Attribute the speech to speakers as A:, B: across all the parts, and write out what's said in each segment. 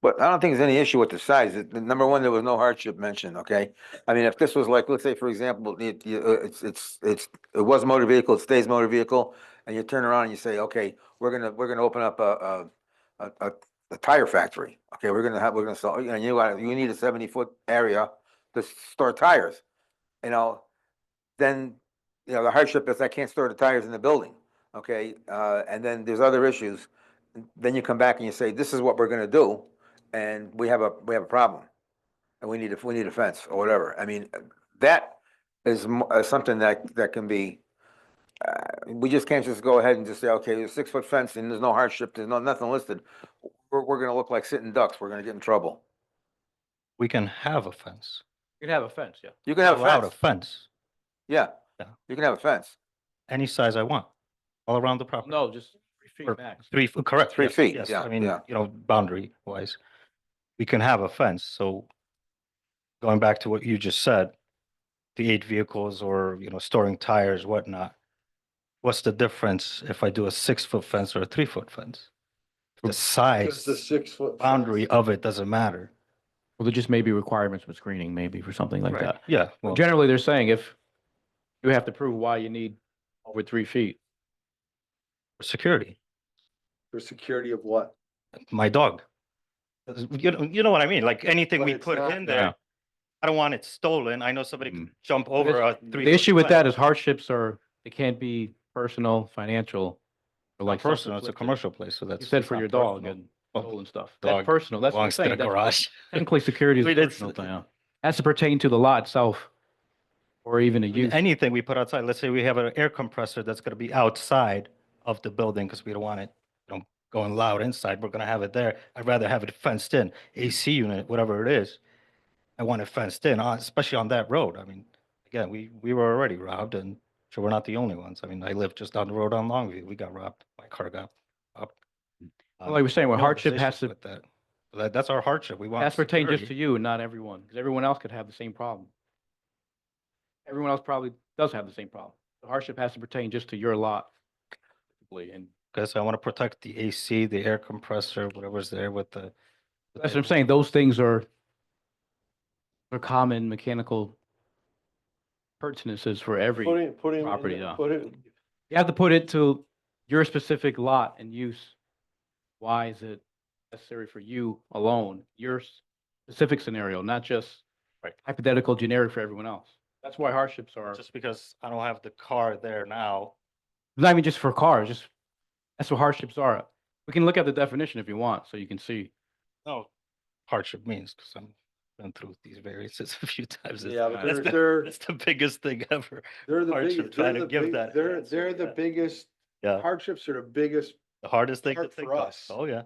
A: But I don't think there's any issue with the size. It- the Number one, there was no hardship mentioned, okay? I mean, if this was like, let's say, for example, it, you- uh, it's, it's, it's, it was motor vehicle, it stays motor vehicle, and you turn around and you say, okay, we're gonna, we're gonna open up a, a, a, a, a tire factory. Okay, we're gonna have, we're gonna sell, you know, you gotta, you need a seventy-foot area to store tires, you know? Then, you know, the hardship is I can't store the tires in the building, okay? Uh, and then there's other issues. Then you come back and you say, this is what we're gonna do and we have a, we have a problem. And we need, a we need a fence or whatever. I mean, that is mo- uh, something that, that can be, uh, we just can't just go ahead and just say, okay, there's six foot fence and there's no hardship, there's no, nothing listed. We're, we're gonna look like sitting ducks. We're gonna get in trouble.
B: We can have a fence,
C: You can have a fence, yeah.
A: You can have
B: allowed
A: a
B: a
A: fence.
B: fence,
A: Yeah,
B: Yeah.
A: you can have a fence,
B: any size I want, all around the property.
C: No, just three
B: Or
C: feet max.
B: Three, f- correct.
A: Three
B: yes,
A: feet,
B: yes,
A: yeah,
B: I mean,
A: yeah.
B: you know, boundary wise, we can have a fence, so going back to what you just said, the eight vehicles or, you know, storing tires, whatnot, what's the difference if I do a six foot fence or a three foot fence? The size,
D: the six foot.
B: boundary of it doesn't matter.
C: Well, there just may be requirements with screening, maybe for something like
B: Right,
C: that.
B: Yeah, well,
C: Generally, they're saying if you have to prove why you need over three feet.
B: security.
D: For security of what?
B: my dog. Does- You know, you know what I mean? Like anything
D: But
B: we
D: it's
B: put
D: not- Mm.
B: in
C: Yeah.
B: there, I don't want it stolen. I know somebody could jump
C: But
B: over a
C: it's-
B: three.
C: The issue with that is hardships are, they can't be personal, financial, or like.
B: Personal, it's a
C: self-inflicted.
B: commercial place, so that's.
C: You said
B: it's
C: for
B: not
C: your dog
B: personal.
C: and
B: Well,
C: stolen stuff. That's
B: dog
C: personal, that's what I'm
B: Belongs to
C: saying.
B: the
C: that's
B: garage.
C: Technically, security is
B: I
C: a
B: mean, it's-
C: personal thing. yeah. Has to pertain to the lot itself or even a use.
B: Anything we put outside, let's say we have an air compressor that's gonna be outside of the building because we don't want it, you know, going loud inside. We're gonna have it there. I'd rather have it fenced in, AC unit, whatever it is. I want it fenced in, uh, especially on that road. I mean, again, we, we were already robbed and sure, we're not the only ones. I mean, I live just down the road on Longview. We got robbed. My car got Um, robbed.
C: Well, Like we're saying, where hardship has to,
B: That, that's our hardship. We want.
C: That's pertaining just to
B: security.
C: you and not everyone, because everyone else could have the same problem. Everyone else probably does have the same problem. The hardship has to pertain just to your lot. specifically, And
B: Because I want to protect the AC, the air compressor, whatever's there with the. with
C: that's
B: the-
C: what I'm saying, those things are are common mechanical pertinences for every,
D: Putting, putting.
C: property, yeah.
D: Put it,
C: you have to put it to your specific lot and use. Why is it necessary for you alone, your s- specific scenario, not just
B: Right.
C: hypothetical generic for everyone else? That's why hardships are.
B: Just because I don't have the car there now.
C: not even just for cars, just that's what hardships are. We can look at the definition if you want, so you can see.
B: No hardship means because I'm been through these variances a few times. It's-
D: yeah, but
B: that's
D: they're,
B: the-
D: they're,
B: That's the biggest thing ever.
D: they're the
B: hardship,
D: biggest,
B: try
D: they're
B: to
D: the
B: give
D: big,
B: that
D: they're,
B: answer,
D: they're the
B: yeah.
D: biggest,
B: Yeah.
D: hardships are the biggest.
B: The hardest thing to
D: Hard for
B: think of.
D: us.
B: Oh, yeah.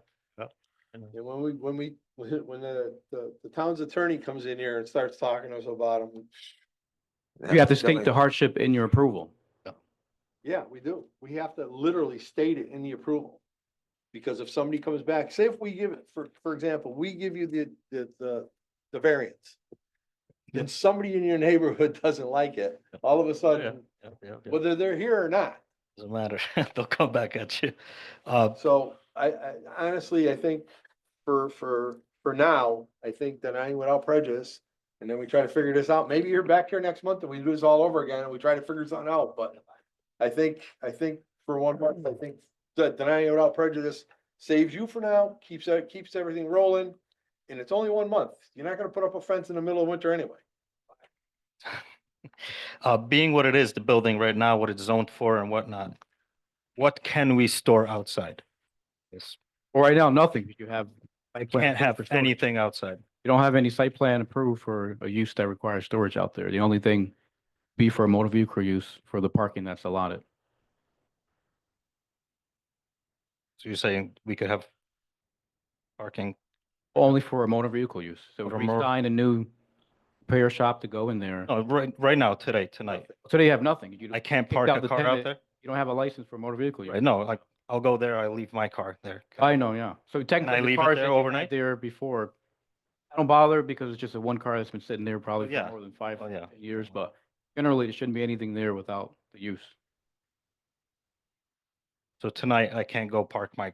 D: And when we, when we, when the, the, the town's attorney comes in here and starts talking to us about them,
C: You have to
A: definitely.
C: state the hardship in your approval.
D: yeah, we do. We have to literally state it in the approval. Because if somebody comes back, say if we give it, for, for example, we give you the, the, the, the variance. Then somebody in your neighborhood doesn't like it, all of a sudden,
B: Yeah, yeah, yeah.
D: whether they're here or not.
B: Doesn't matter. They'll come back at you. Uh,
D: So I, I honestly, I think for, for, for now, I think denying without prejudice. And then we try to figure this out. Maybe you're back here next month and we do this all over again and we try to figure something out, but I think, I think for one month, I think that denying without prejudice saves you for now, keeps, that keeps everything rolling. And it's only one month. You're not gonna put up a fence in the middle of winter anyway.
B: uh, being what it is, the building right now, what it's zoned for and whatnot, what can we store outside? Yes,
C: Or right now, nothing, because you have,
B: I
C: plan
B: can't
C: for
B: have
C: storage.
B: anything outside.
C: you don't have any site plan approved for a use that requires storage out there. The only thing be for a motor vehicle use for the parking that's allotted.
B: So you're saying we could have parking,
C: Only for a motor vehicle use. So
B: For
C: if we
B: motor-
C: sign a new repair shop to go in there,
B: no, right, right now, today, tonight,
C: today you have nothing. You
B: I
C: don't,
B: can't
C: kicked
B: park
C: out
B: a
C: the
B: car out
C: tenant.
B: there?
C: you don't have a license for a motor vehicle.
B: Right,
C: use.
B: no, like, I'll go there, I leave my car there.
C: I know, yeah. So technically. the
B: leave it
C: cars
B: there
C: that you had
B: overnight?
C: There before. I don't bother because it's just a one car that's been sitting there probably
B: yeah.
C: for more than five
B: Oh, yeah.
C: years, but generally there shouldn't be anything there without the use.
B: So tonight, I can't go park my